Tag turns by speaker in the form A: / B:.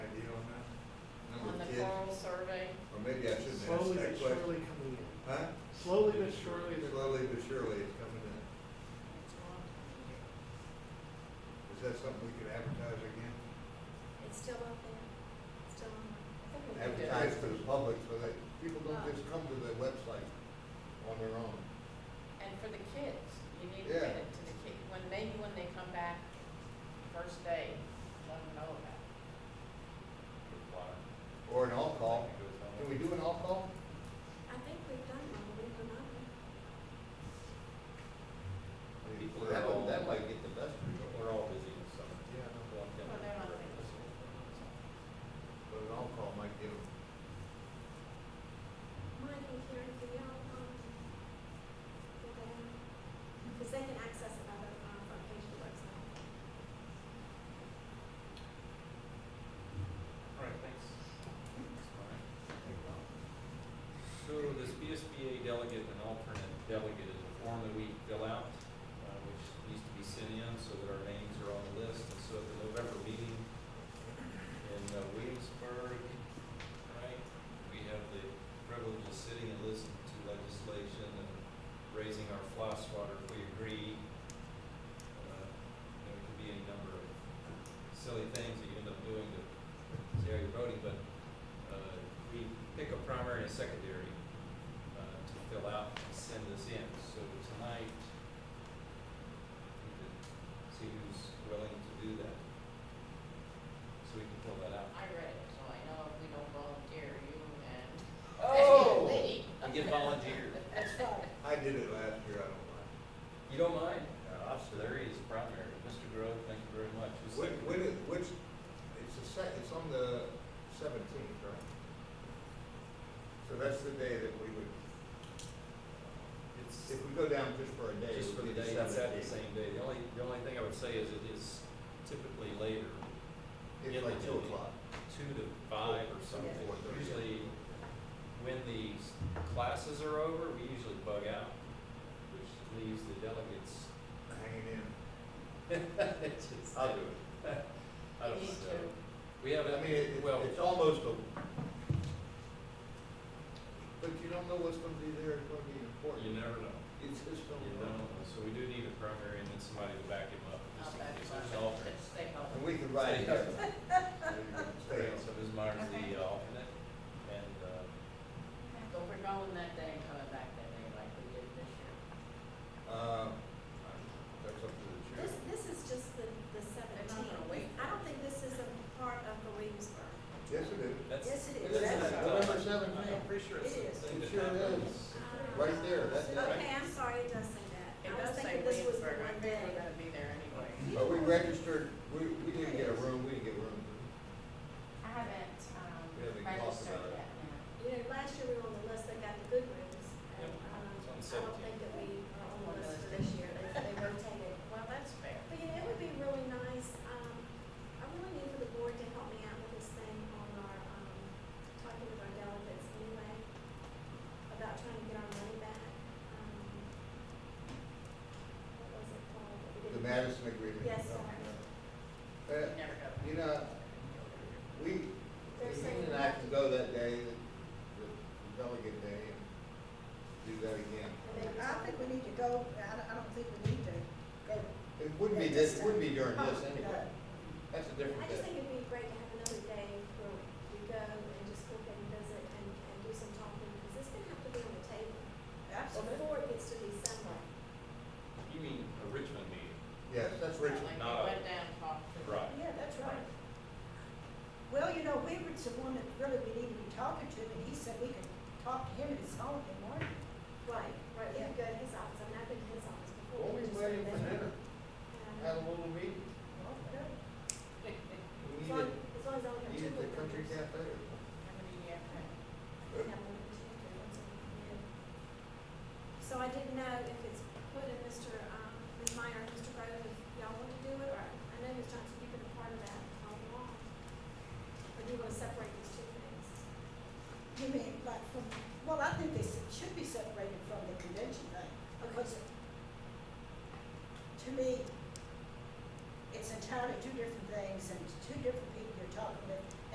A: maybe I shouldn't ask
B: Slowly
A: that
B: but
A: question.
B: surely coming in.
A: Huh?
B: Slowly but surely, they're
A: Slowly but surely it's coming in. Is that something we could advertise again?
C: It's still out there, It's still on.
D: I think we
A: Advertise
D: do.
A: for the public so that people don't just come to the website on their own.
D: And for the kids, you need to
A: Yeah.
D: get it to the kid, when, maybe when they come back first day, let them know about it.
A: Or an all-call. Can we do an all-call?
C: I think we've done one, we've done another.
E: People
A: That
E: are
A: would-
E: all-
A: That might get the best
E: We're
A: result.
E: all busy in the summer.
A: Yeah, I know.
D: Well, they're not like this.
A: but an all-call might give them.
C: Mike and Karen, do y'all, um, get that out? Because they can access it by the, um, front page of the website.
F: All right, thanks.
E: So this BSBA delegate and alternate delegate is a form that we fill out, uh, which needs to be sent in so that our names are on the list. And so at the November meeting in uh, Williamsburg, right, we have the privilege of sitting and listening to legislation and raising our fly swatter if we agree. Uh, There could be any number of silly things that you end up doing to see how you're voting, but uh, we pick a primary and a secondary uh, to fill out and send this in. So tonight, we could see who's willing to do that. So we can fill that out.
D: I read it, so I know if we don't volunteer, you and.
C: Oh!
D: Lee.
E: And get volunteered.
D: That's fine.
A: I did it last year, I don't mind.
E: You don't mind? Officer Larry is primary. Mr. Grove, thank you very much. Who's
A: Which,
E: second?
A: which, which, it's the sec, it's on the seventeenth, right? So that's the day that we would,
E: It's
A: if we go down just for a day, it
E: just for the
A: would be
E: day,
A: the
E: it's at the
A: seventeenth.
E: same day. The only, the only thing I would say is it is typically later,
A: It's
E: in
A: like
E: the
A: two
E: day.
A: o'clock.
E: two to five or something.
A: Four thirty.
E: Usually, when these classes are over, we usually bug out, which leaves the delegates.
A: Hanging in.
E: It's just-
A: I'll do it.
E: I don't
D: You
E: know.
D: need to.
E: We have,
A: I mean, it,
E: a-
A: it-
E: well,
A: it's almost a. But you don't know what's gonna be there, it's gonna be important.
E: you never know.
A: It's just don't
E: You don't
A: know.
E: know. So we do need a primary and then somebody to back him up.
D: I'll
E: just in
D: back
E: case
D: you up.
E: there's an alternate.
D: Stay home.
A: And we can ride it.
E: Stay-
A: Stay on.
E: So Ms. Myers the uh, alternate and, uh,
D: But we're going that day and coming back that day like we did this year.
A: Uh, that's up to the chair.
C: This, this is just the, the seventeenth.
D: wait.
C: I don't think this is a part of the Williamsburg.
A: Yes, it is.
E: that's.
C: Yes, it is. That's
E: that's that,
A: right.
E: uh,
A: November 17th.
E: I'm pretty sure it's
C: It
E: the
C: is.
E: thing
A: It
E: that
A: sure is.
E: happens.
A: Right there, that's it.
C: Okay, I'm sorry, it does say that.
D: It
C: I was
D: does say
C: thinking this was the
D: Williamsburg, I
C: one
D: think
C: day.
D: we're gonna be there anyway.
A: But we registered, we, we didn't get a room, we didn't get a room.
G: I haven't, um,
A: We haven't talked
G: registered
A: about it.
G: yet, no.
C: You know, last year we were on the list, they got the good rooms. Um,
E: Yep, it's on the
C: I don't think
E: 17th.
C: that we are on the list for this year, they, they rotated.
D: Well, that's fair.
C: But you know, it would be really nice, um, I really need for the board to help me out with this thing on our, um, talking with our delegates anyway, about trying to get our money back. Um, What was it called? that we
A: The
C: didn't-
A: Madison Agreement.
C: Yes, sir.
A: Uh,
D: You never go.
A: you know, we,
C: They're saying
A: Elaine and I can go that day, the- the delegate day, and do that again.
C: And they were
H: I think we need to go, I don't, I don't think we need to go. Oh,
A: It wouldn't be this, it wouldn't be during this anyway. That's a
C: Oh, I
A: different
C: just think
A: day.
C: it'd be great to have another day where we go and just look and visit and, and do some talking, because it's gonna have to be on the table
H: Absolutely.
C: before it gets to December.
E: You mean a Richmond meeting?
A: Yes, that's
D: Like
A: Richmond.
D: we
E: not a-
D: went down, and talked to.
E: Right.
H: Yeah, that's right. Well, you know, Weaver's the one that really we need to be talking to, and he said we could talk to him at his home in the morning.
C: Right, right, you can go to his office, I mean, I've been to his office before.
A: We'll be
C: just
A: waiting
C: like
A: for
C: that.
A: dinner,
C: And,
A: have a little meeting.
H: Okay.
A: We
C: As
A: need
C: long,
A: it,
C: as long as I only
A: we
C: have two.
A: need the
C: board
A: country
C: members.
A: cafe. or something.
D: How many uh, do you have now?
C: Yeah, one or two, three, one, two, three. So I didn't know if it's put in Mr., um, Ms. Meyer, Mr. Grove, if y'all want to do it, or, I know Ms. Johnson, you've been a part of that all along. Or do you want to separate these two things?
H: You mean, like, from, well, I think they should be separate,